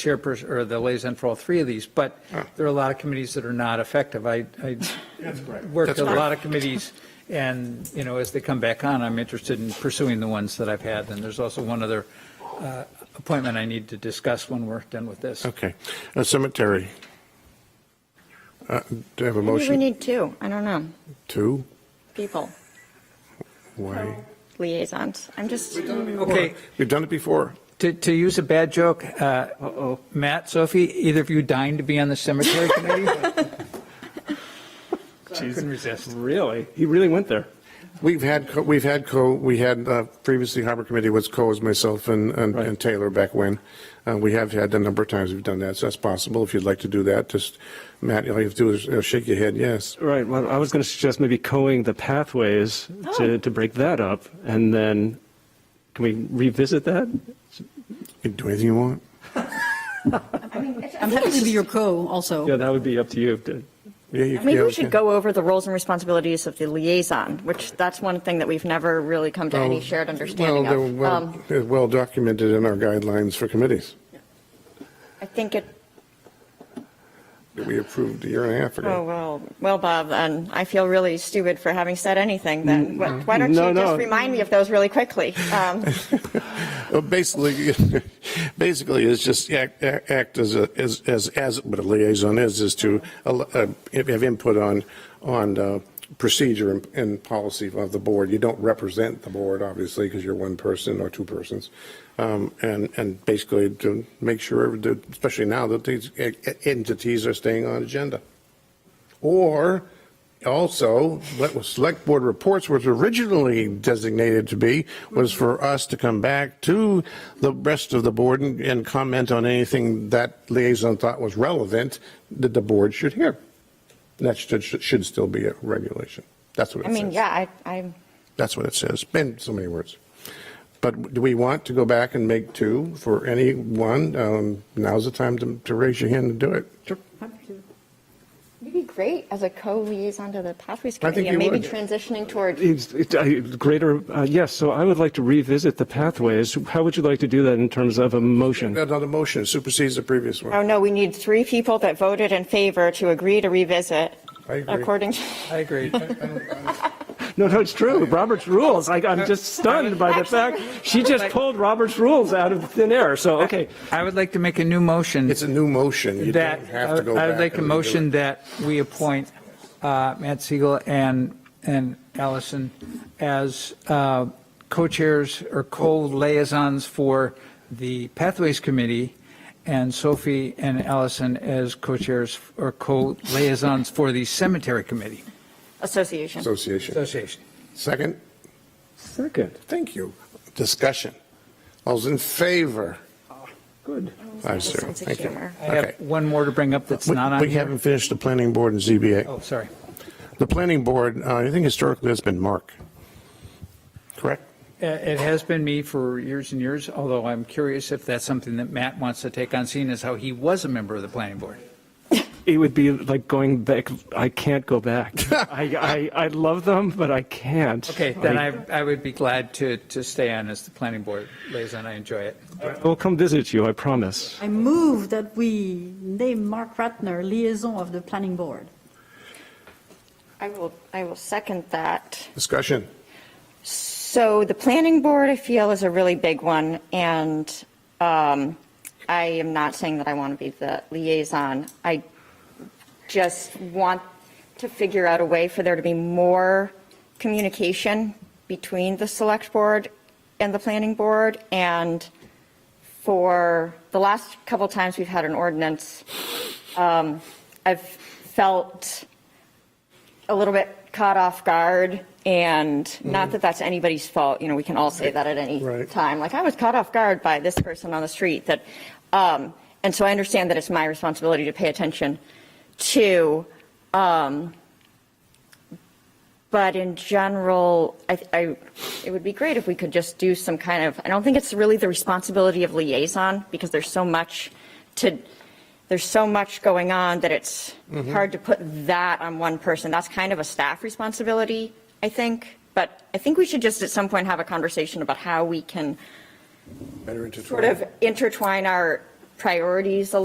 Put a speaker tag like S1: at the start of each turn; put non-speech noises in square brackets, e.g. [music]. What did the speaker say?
S1: chairperson or the liaison for all three of these, but there are a lot of committees that are not effective. I, I worked
S2: Ah. That's
S1: a
S2: correct.
S1: lot of committees, and, you know, as they come back on, I'm interested in pursuing the ones that I've had. And there's also one other uh, appointment I need to discuss when we're done with this.
S2: Okay. Uh, Cemetery. Uh, Do I have a
S3: Maybe we
S2: motion?
S3: need two, I don't know,
S2: Two?
S3: people,
S2: Why?
S3: liaisons. I'm just, Oh.
S1: Okay,
S2: We've done it before.
S1: to, to use a bad joke, uh, Matt, Sophie, either of you dying to be on the cemetery
S2: [laughs]
S1: committee? Couldn't resist.
S4: Really? He really went there.
S2: We've had, co- we've had co, we had uh, previously Harbor Committee was co as myself and, and
S4: Right.
S2: and Taylor back when. Uh, We have had a number of times we've done that, so that's possible. If you'd like to do that, just, Matt, all you have to do is uh, shake your head, yes.
S4: Right. Well, I was going to suggest maybe coing the pathways to, to break that up, and then can we revisit that?
S2: You can do anything you want.
S5: I'm happy to be your co also.
S4: Yeah, that would be up to you. to-
S2: Yeah, you can.
S3: maybe
S2: yeah,
S3: we
S2: okay.
S3: should go over the roles and responsibilities of the liaison, which that's one thing that we've never really come to any
S2: Oh, Well,
S3: shared understanding
S2: well,
S3: of.
S2: they're well-
S3: Um,
S2: they're Well documented in our guidelines for committees
S3: I think it,
S2: that we approved a year and a half
S3: oh,
S2: ago.
S3: well, well, Bob, then I feel really stupid for having said anything
S2: Mm,
S3: then. Wh- Why don't
S4: No,
S3: you
S4: no.
S3: just remind me of those really quickly?
S2: [laughs]
S3: Um,
S2: Well, Basically, [laughs] basically, it's just act, act as a, as, as, as what a liaison is, is to al- uh, have input on, on uh, procedure and, and policy of the board. You don't represent the board, obviously, because you're one person or two persons. Um, And, and basically to make sure, that- especially now that these e- entities are staying on agenda. Or also, what was select board reports was originally designated to be, was for us to come back to the rest of the board and, and comment on anything that liaison thought was relevant that the board should hear. And That should, should should still be a regulation. That's what
S3: I
S2: it
S3: mean,
S2: says.
S3: yeah, I, I'm.
S2: That's what it says, in so many words. But do we want to go back and make two for any one? Um, Now's the time to, to raise your hand and do it.
S3: It'd be great as a co-liaison to the Pathways
S2: I think
S3: Committee and
S2: you
S3: maybe
S2: would.
S3: transitioning toward,
S4: It's- it- I- Greater, uh, yes, so I would like to revisit the pathways. How would you like to do that in terms of a motion?
S2: Another motion supersedes the previous
S3: oh
S2: one.
S3: no, we need three people that voted in favor to agree to revisit
S2: I agree.
S3: according to.
S1: I agree.
S4: No, no, it's true. Robert's rules. I, I'm just stunned by the fact she just pulled Robert's rules out of thin air. So, okay.
S1: I would like to make a new motion.
S2: It's a new motion. You
S1: that, uh,
S2: don't have to go
S1: I would
S2: back
S1: like a
S2: and redo it.
S1: motion that we appoint uh, Matt Siegel and, and Allison as uh, co-chairs or co-liaisons for the Pathways Committee, and Sophie and Allison as co-chairs or co-liaisons for the Cemetery Committee
S3: Association.
S2: Association.
S1: Association.
S2: Second,
S4: Second.
S2: thank you. Discussion. All's in favor?
S4: Good.
S2: Five zero.
S3: Sense of
S2: Thank you.
S3: humor.
S1: I have
S2: Okay.
S1: one more to bring up that's
S2: We-
S1: not on
S2: We
S1: here.
S2: haven't finished the planning board and ZBA.
S1: Oh, sorry.
S2: The planning board, uh, I think historically has been Mark. Correct?
S1: Uh, It has been me for years and years, although I'm curious if that's something that Matt wants to take on, seeing as how he was a member of the planning board.
S4: It would be like going back. I can't go back.
S1: [laughs]
S4: I, I, I love them, but I can't.
S1: Okay, then I, I would be glad to, to stay on as the planning board liaison. I enjoy it.
S4: will come visit you, I promise.
S5: I move that we name Mark Ratner liaison of the planning board.
S3: I will, I will second that.
S2: Discussion.
S3: So the planning board, I feel, is a really big one, and um, I am not saying that I want to be the liaison. I just want to figure out a way for there to be more communication between the select board and the planning board, and for the last couple times we've had an ordinance, um, I've felt a little bit caught off guard, and not that that's anybody's fault, you know, we can all say that at any
S2: Right.
S3: time, like, I was caught off guard by this person on the street, that, um, and so I understand that it's my responsibility to pay attention to, um, but in general, I, I, it would be great if we could just do some kind of, I don't think it's really the responsibility of liaison, because there's so much to, there's so much going on that it's hard to put that on one person. That's kind of a staff responsibility, I think. But I think we should just at some point have a conversation about how we can
S2: Better
S3: sort of intertwine our priorities a